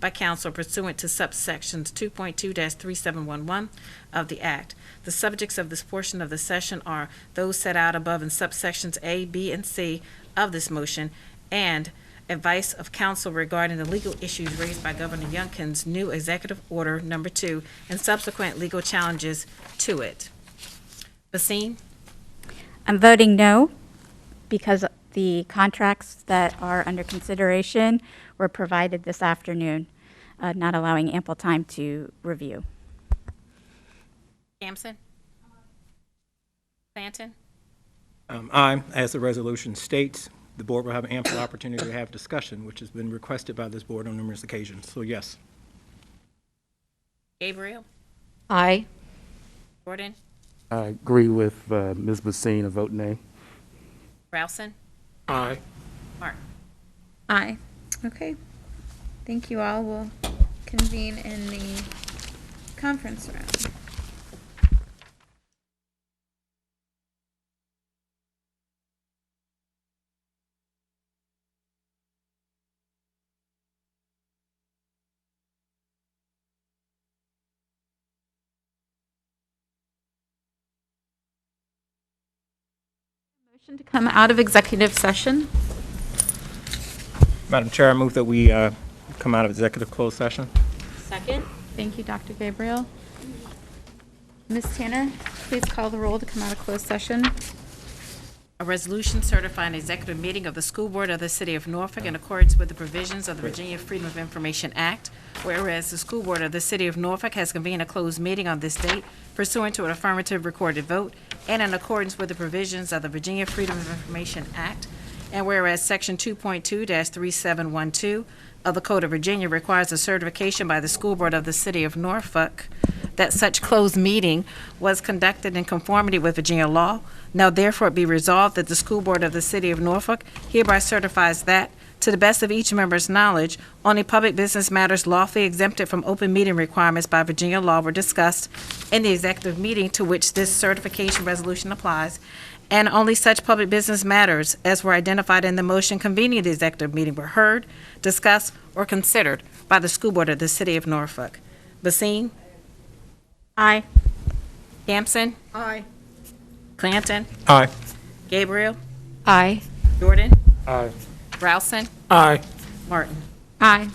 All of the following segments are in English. by council pursuant to subsections 2.2-3711 of the Act. The subjects of this portion of the session are those set out above in subsections A, B, and C of this motion, and advice of counsel regarding the legal issues raised by Governor Youngkin's new Executive Order Number Two and subsequent legal challenges to it. Basine? I'm voting no because the contracts that are under consideration were provided this afternoon, uh, not allowing ample time to review. Sampson? Planton? Um, Aye. As the resolution states, the board will have ample opportunity to have discussion, which has been requested by this board on numerous occasions. So yes. Gabriel? Aye. Jordan? I agree with uh, Ms. Basine, a vote nay. Rousen? Aye. Martin? Aye. Okay. Thank you all. We'll convene in the conference room. Motion to come out of executive session. Madam Chair, I move that we uh, come out of executive closed session. Second? Thank you, Dr. Gabriel. Ms. Tanner, please call the roll to come out of closed session. A resolution certifying executive meeting of the school board of the city of Norfolk in accordance with the provisions of the Virginia Freedom of Information Act, whereas the school board of the city of Norfolk has convened a closed meeting on this date pursuant to an affirmative recorded vote and in accordance with the provisions of the Virginia Freedom of Information Act, and whereas Section 2.2-3712 of the Code of Virginia requires a certification by the school board of the city of Norfolk that such closed meeting was conducted in conformity with Virginia law. Now therefore it be resolved that the school board of the city of Norfolk hereby certifies that, to the best of each member's knowledge, only public business matters lawfully exempted from open meeting requirements by Virginia law were discussed in the executive meeting to which this certification resolution applies, and only such public business matters as were identified in the motion convening the executive meeting were heard, discussed, or considered by the school board of the city of Norfolk. Basine? Aye. Sampson? Aye. Clanton? Aye. Gabriel? Aye. Jordan? Aye. Rousen? Aye. Martin? Aye.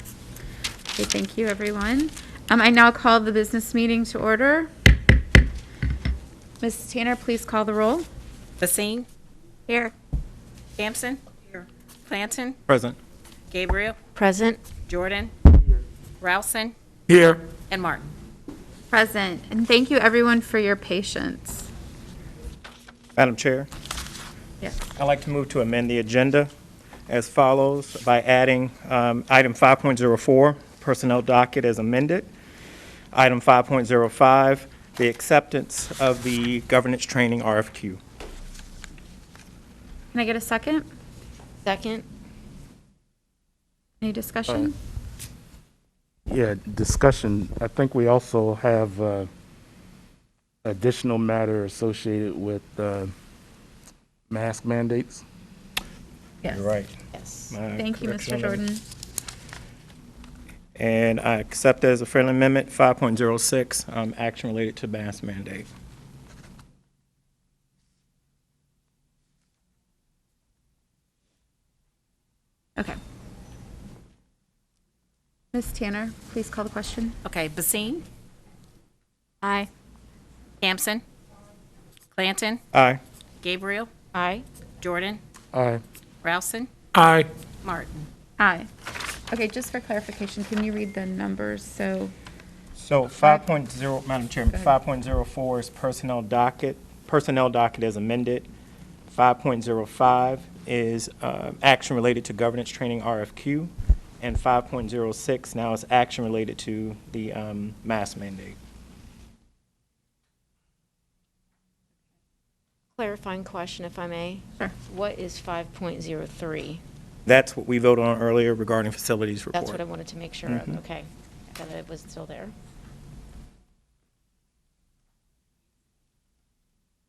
Okay, thank you, everyone. Um, I now call the business meeting to order. Ms. Tanner, please call the roll. Basine? Here. Sampson? Here. Clanton? Present. Gabriel? Present. Jordan? Rousen? Here. And Martin? Present. And thank you, everyone, for your patience. Madam Chair, Yes. I'd like to move to amend the agenda as follows by adding um, item 5.04, personnel docket as amended. Item 5.05, the acceptance of the governance training RFQ. Can I get a second? Second. Any discussion? Yeah, discussion. I think we also have uh, additional matter associated with uh, mask mandates. You're right. Yes. My Thank you, Uh, correction Mr. amendment. Jordan. And I accept as a friendly amendment 5.06, um, action related to mask mandate. Okay. Ms. Tanner, please call the question. Okay, Basine? Aye. Sampson? Clanton? Aye. Gabriel? Aye. Jordan? Aye. Rousen? Aye. Martin? Aye. Okay, just for clarification, can you read the numbers? So, So 5.0, Madam Chairman, 5.04 is personnel docket, personnel docket as amended. 5.05 is uh, action related to governance training RFQ. And 5.06 now is action related to the um, mask mandate. Clarifying question, if I may. Sure. What is 5.03? That's what we voted on earlier regarding facilities report. That's what I wanted to make sure of. Okay. I thought it was still there.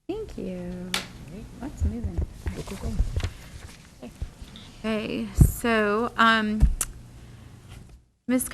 thank you. Lots moving. Okay, so, um, Ms.